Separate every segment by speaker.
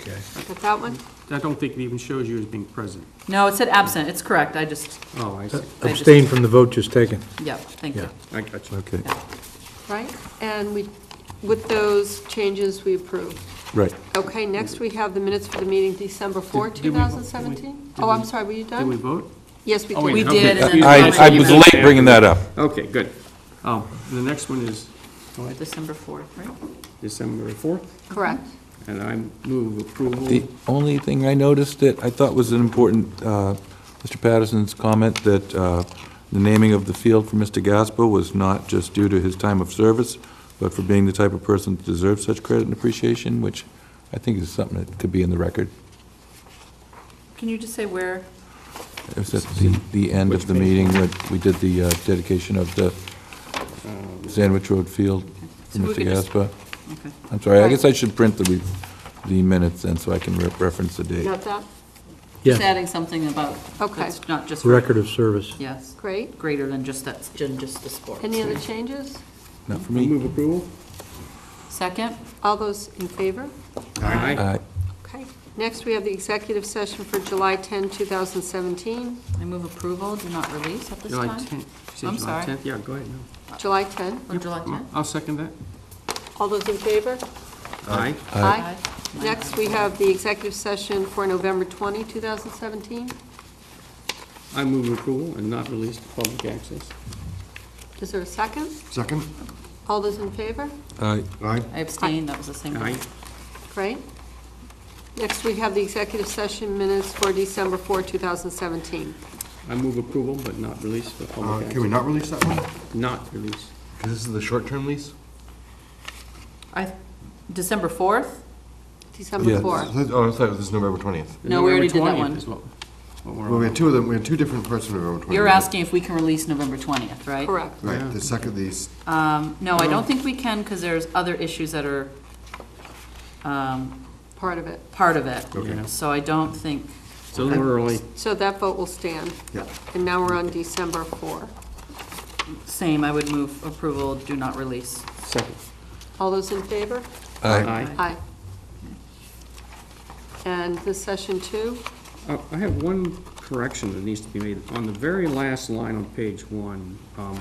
Speaker 1: okay.
Speaker 2: Got that one?
Speaker 3: I don't think it even shows you as being present.
Speaker 4: No, it said absent, it's correct, I just,
Speaker 3: Oh, I see.
Speaker 4: I just-
Speaker 1: Abstain from the vote just taken.
Speaker 4: yeah, thank you.
Speaker 3: I got you.
Speaker 1: Okay,
Speaker 2: Right? And we, with those changes, we approve.
Speaker 1: right.
Speaker 2: Okay, next we have the minutes for the meeting December 4,
Speaker 3: Did- did we vote?
Speaker 2: 2017?
Speaker 3: Did
Speaker 2: Oh,
Speaker 3: we-
Speaker 2: I'm sorry, were you
Speaker 3: Did we
Speaker 2: done?
Speaker 3: vote?
Speaker 2: Yes, we
Speaker 3: Oh,
Speaker 2: did.
Speaker 3: wait,
Speaker 4: We
Speaker 3: okay.
Speaker 4: did, and then-
Speaker 3: Excuse me.
Speaker 4: I- I was
Speaker 3: late bringing that
Speaker 5: up.
Speaker 3: Okay, good. Um, The next one is
Speaker 4: December 4th, right?
Speaker 3: December 4th,
Speaker 2: Correct.
Speaker 3: and I move
Speaker 5: The
Speaker 3: approval.
Speaker 5: only thing I noticed that I thought was an important, uh, Mr. Patterson's comment that uh, the naming of the field for Mr. Gasper was not just due to his time of service, but for being the type of person that deserves such credit and appreciation, which I think is something that could be in the record.
Speaker 4: Can you just say where?
Speaker 5: It was at the, the end of the meeting when we did the uh, dedication of the Sandwich Road Field for
Speaker 4: So we
Speaker 5: Mr.
Speaker 4: could just-
Speaker 5: Gasper.
Speaker 4: Okay.
Speaker 5: I'm sorry, I guess I should print the, re- the minutes then, so I can re- reference the date.
Speaker 2: Got that?
Speaker 4: Just
Speaker 1: Yeah,
Speaker 4: adding something about,
Speaker 2: Okay.
Speaker 4: that's not just.
Speaker 1: record of service.
Speaker 4: Yes,
Speaker 2: Great.
Speaker 4: greater than just that, than just the sports.
Speaker 2: Any other changes?
Speaker 5: Not for
Speaker 3: I
Speaker 5: me.
Speaker 3: Move approval?
Speaker 4: Second,
Speaker 2: All those in favor?
Speaker 3: Aye.
Speaker 5: Aye.
Speaker 2: Okay. Next, we have the executive session for July 10, 2017,
Speaker 4: I move approval, do not release at this
Speaker 3: July
Speaker 4: time?
Speaker 3: 10th. You said
Speaker 4: I'm
Speaker 3: July
Speaker 4: sorry.
Speaker 3: 10th? Yeah, go ahead. no.
Speaker 2: July 10.
Speaker 4: Or July 10th?
Speaker 3: I'll second that.
Speaker 2: All those in favor?
Speaker 3: Aye.
Speaker 2: Aye. Next, we have the executive session for November 20, 2017.
Speaker 3: I move approval and not release to public access.
Speaker 2: Is there a second?
Speaker 6: Second?
Speaker 2: All those in favor?
Speaker 5: Aye.
Speaker 6: Aye.
Speaker 4: I abstain, that was the same.
Speaker 3: Aye.
Speaker 2: Great. Next, we have the executive session minutes for December 4, 2017.
Speaker 3: I move approval but not release for
Speaker 6: Uh,
Speaker 3: public
Speaker 6: Can we
Speaker 3: access.
Speaker 6: not release that one?
Speaker 3: Not release.
Speaker 6: Because this is the short-term lease?
Speaker 4: I, December 4th?
Speaker 2: December
Speaker 5: Yeah.
Speaker 2: 4.
Speaker 6: Oh, I'm sorry, this is November 20th.
Speaker 4: No, we already did that
Speaker 3: November
Speaker 4: one.
Speaker 3: 20th is what- what we're
Speaker 6: Well, we
Speaker 3: on.
Speaker 6: had two of them, we had two different parts of November 20th.
Speaker 4: You're asking if we can release November 20th, right?
Speaker 2: Correct.
Speaker 6: Right, the second, these,
Speaker 4: Um, No, I don't think we can, because there's other issues that are um,
Speaker 2: part of it.
Speaker 4: part of it.
Speaker 3: Okay.
Speaker 4: So I don't think,
Speaker 3: It's a little early.
Speaker 2: So that vote will stand.
Speaker 6: yeah.
Speaker 2: And now we're on December 4.
Speaker 4: same, I would move approval, do not release.
Speaker 3: Second.
Speaker 2: All those in favor?
Speaker 3: Aye.
Speaker 2: Aye. And the session two,
Speaker 3: Uh, I have one correction that needs to be made. On the very last line on page one, um,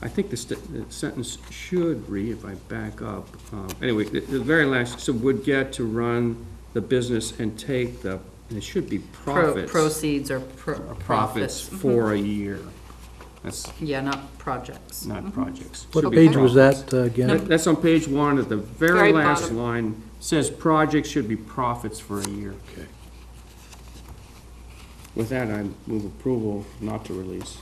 Speaker 3: I think the st- the sentence should read, if I back up, um, anyway, the the very last, so would get to run the business and take the, and it should be
Speaker 4: Pro-
Speaker 3: profits. Uh,
Speaker 4: Proceeds or pro-
Speaker 3: Profits Mm-hmm.
Speaker 4: profits.
Speaker 3: for a year. That's
Speaker 4: Yeah, not projects.
Speaker 3: not projects.
Speaker 1: What
Speaker 3: Mm-hmm. Should be
Speaker 1: page was
Speaker 3: profits.
Speaker 1: that uh, again?
Speaker 3: That- That's on page one, at the very
Speaker 2: Very
Speaker 3: last
Speaker 2: bottom.
Speaker 3: line, says projects should be profits for a year.
Speaker 6: Okay.
Speaker 3: With that, I move approval not to release.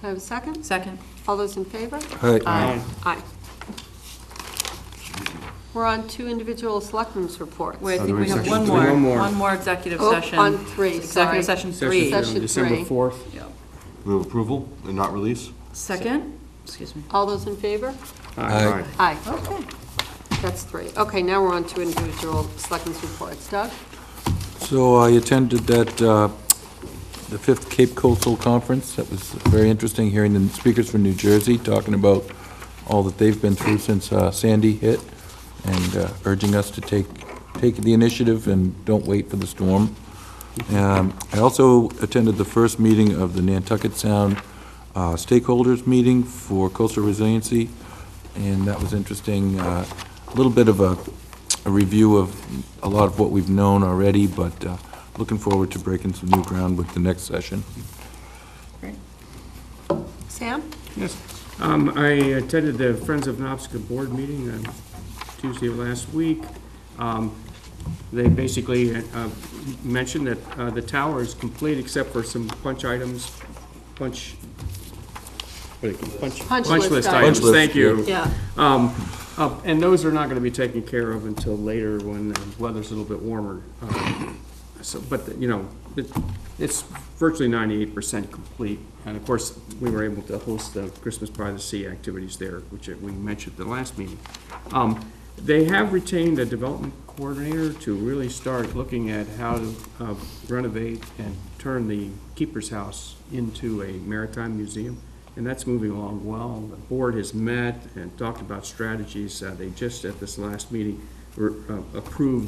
Speaker 2: can I have a second?
Speaker 4: Second,
Speaker 2: All those in favor?
Speaker 5: Aye.
Speaker 2: Aye. We're on two individual selectmen's reports.
Speaker 4: wait, I
Speaker 6: Oh,
Speaker 4: think
Speaker 6: there
Speaker 4: we
Speaker 6: is
Speaker 4: have
Speaker 6: section
Speaker 4: one
Speaker 3: three.
Speaker 4: more,
Speaker 3: One more.
Speaker 4: one more executive
Speaker 2: Oh,
Speaker 4: session.
Speaker 2: on three, sorry.
Speaker 4: Executive
Speaker 3: Session
Speaker 4: session three.
Speaker 3: three on
Speaker 2: Session
Speaker 3: December
Speaker 2: three.
Speaker 3: 4th.
Speaker 4: Yeah.
Speaker 6: Move approval and not release?
Speaker 4: Second, excuse me.
Speaker 2: All those in favor?
Speaker 5: Aye.
Speaker 2: Aye.
Speaker 4: Okay.
Speaker 2: That's three. Okay, now we're on to individual selectmen's reports. Doug?
Speaker 5: So I attended that, uh, the Fifth Cape Coastal Conference. That was very interesting, hearing the speakers from New Jersey talking about all that they've been through since uh, Sandy hit, and uh, urging us to take, take the initiative and don't wait for the storm. Um, I also attended the first meeting of the Nantucket Sound uh, Stakeholders Meeting for Coastal Resiliency, and that was interesting. Uh, A little bit of a a review of a lot of what we've known already, but uh, looking forward to breaking some new ground with the next session.
Speaker 2: Sam?
Speaker 3: Yes. Um, I attended the Friends of Knobsco Board meeting on Tuesday of last week. Um, They basically uh, mentioned that uh, the tower is complete except for some punch items, punch, what do you call it? punch?
Speaker 2: Punch list items.
Speaker 3: items, thank you.
Speaker 2: Yeah.
Speaker 3: Um, uh, And those are not going to be taken care of until later when the weather's a little bit warmer. Um, So, but, you know, it- it's virtually 98% complete. And of course, we were able to host the Christmas by the Sea activities there, which we mentioned at the last meeting. Um, They have retained a development coordinator to really start looking at how to uh, renovate and turn the Keeper's House into a maritime museum. And that's moving along well. The board has met and talked about strategies. Uh, They just, at this last meeting, were, uh, approved